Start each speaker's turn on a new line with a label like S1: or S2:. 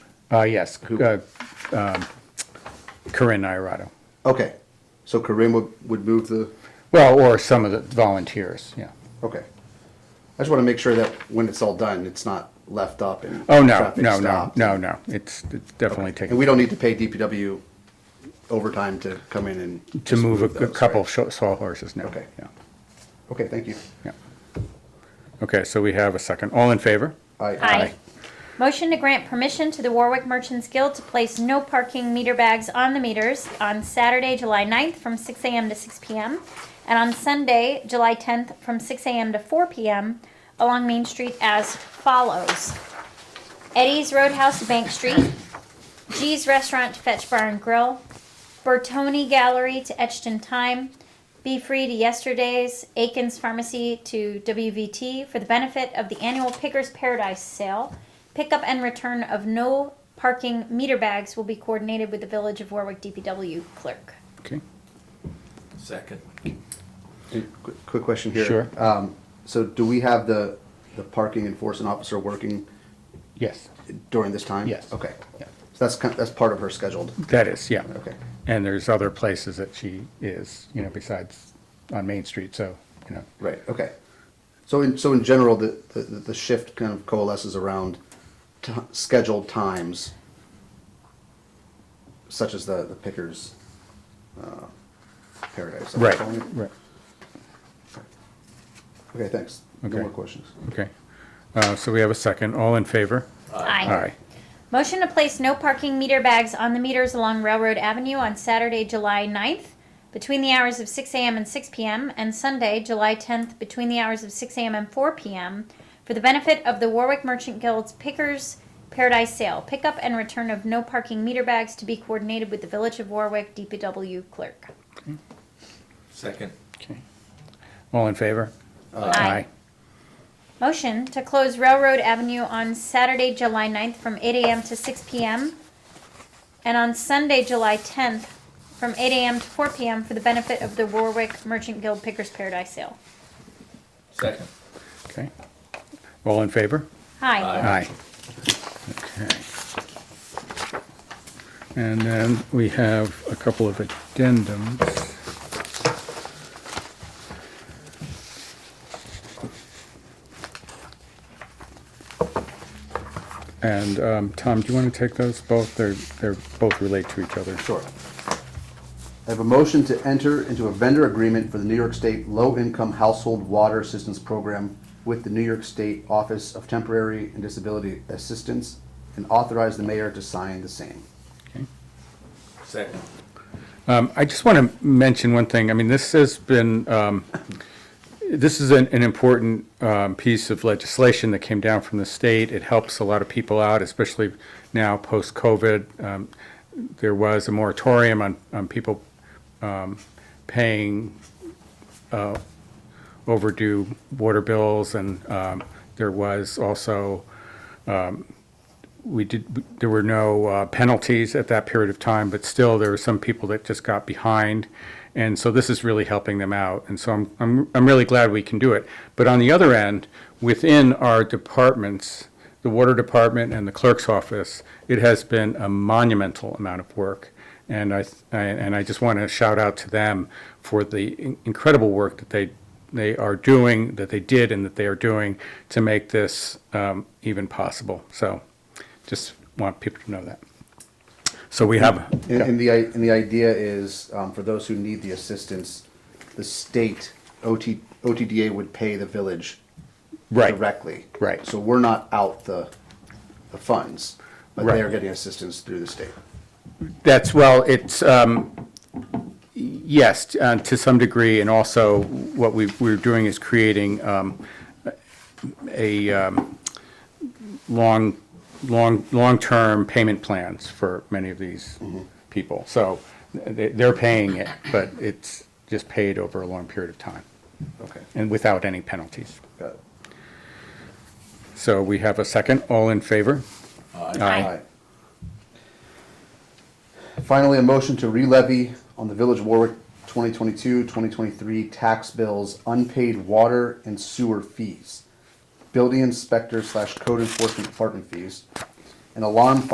S1: Uh, yes, uh, um, Corinne Irato.
S2: Okay, so Corinne would, would move the,
S1: Well, or some of the volunteers, yeah.
S2: okay. I just want to make sure that when it's all done, it's not left up and.
S1: Oh, no,
S2: traffic
S1: no, no,
S2: stopped.
S1: no, no. It's, it's definitely
S2: And we
S1: taken,
S2: don't need to pay DPW overtime to come in and.
S1: to
S2: just
S1: move a- a
S2: those,
S1: couple
S2: right?
S1: sho- saw horses now.
S2: Okay.
S1: Yeah,
S2: Okay, thank you.
S1: yeah. Okay, so we have a second. All in favor?
S2: Aye.
S3: Aye. Motion to grant permission to the Warwick Merchants Guild to place no parking meter bags on the meters on Saturday, July 9th from 6 a.m. to 6 p.m. and on Sunday, July 10th from 6 a.m. to 4 p.m. along Main Street as follows. Eddie's Roadhouse to Bank Street, G's Restaurant to Fetch Bar and Grill, Bertoni Gallery to Etched in Time, Be Free to Yesterday's, Aiken's Pharmacy to WVT for the benefit of the annual Pickers Paradise sale. Pickup and return of no parking meter bags will be coordinated with the Village of Warwick DPW clerk.
S1: Okay.
S4: Second.
S2: Hey, Quick quick question here.
S1: Sure.
S2: Um, So do we have the, the parking enforcement officer working
S1: Yes,
S2: during this time?
S1: Yes.
S2: Okay.
S1: Yeah.
S2: So that's, kind- that's part of her scheduled.
S1: that is, yeah.
S2: Okay.
S1: And there's other places that she is, you know, besides on Main Street, so, you know.
S2: Right, okay. So in, so in general, the, the, the shift kind of coalesces around t- scheduled times, such as the, the Pickers, uh, Paradise.
S1: Right, right.
S2: Okay, thanks. No
S1: Okay.
S2: more questions.
S1: Okay. Uh, so we have a second. All in favor? Aye.
S3: Motion to place no parking meter bags on the meters along Railroad Avenue on Saturday, July 9th, between the hours of 6 a.m. and 6 p.m., and Sunday, July 10th, between the hours of 6 a.m. and 4 p.m., for the benefit of the Warwick Merchant Guild's Pickers Paradise Sale. Pickup and return of no parking meter bags to be coordinated with the Village of Warwick DPW clerk.
S4: Second.
S1: Okay. All in favor?
S3: Aye. Motion to close Railroad Avenue on Saturday, July 9th from 8 AM to 6 PM, and on Sunday, July 10th from 8 AM to 4 PM for the benefit of the Warwick Merchant Guild Pickers Paradise Sale.
S4: Second.
S1: Okay. All in favor?
S3: Hi.
S4: Aye.
S1: Aye. Okay. And then we have a couple of addendums. And um, Tom, do you want to take those both? They're, they're both relate to each other.
S2: Sure. I have a motion to enter into a vendor agreement for the New York State Low Income Household Water Assistance Program with the New York State Office of Temporary and Disability Assistance and authorize the mayor to sign the same.
S4: Second.
S1: Um, I just want to mention one thing. I mean, this has been, um, this is an, an important, um, piece of legislation that came down from the state. It helps a lot of people out, especially now post-COVID. Um, there was a moratorium on, on people, um, paying, uh, overdue water bills and, um, there was also, we did, there were no uh, penalties at that period of time, but still, there were some people that just got behind. And so this is really helping them out. And so I'm, I'm, I'm really glad we can do it. But on the other end, within our departments, the water department and the clerk's office, it has been a monumental amount of work. And I, th- I- and I just want to shout out to them for the in- incredible work that they, they are doing, that they did and that they are doing to make this um, even possible. So just want people to know that. So we have,
S2: And, and the, i- and the idea is, um, for those who need the assistance, the state OT, OTDA would pay the village
S1: Right.
S2: directly.
S1: Right.
S2: So we're not out the, the funds, but
S1: Right.
S2: they are getting assistance through the state.
S1: that's, well, it's, um, yes, uh, to some degree, and also what we, we're doing is creating um, a um, long, long, long-term payment plans for many of these
S3: Mm-hmm.
S1: people. So they, they're paying it, but it's just paid over a long period of time
S2: Okay.
S1: and without any penalties.
S2: Got it.
S1: So we have a second. All in favor?
S3: Aye.
S2: Finally, a motion to re-levy on the Village of Warwick 2022-2023 tax bills unpaid water and sewer fees, building inspector slash code enforcement department fees, and alarm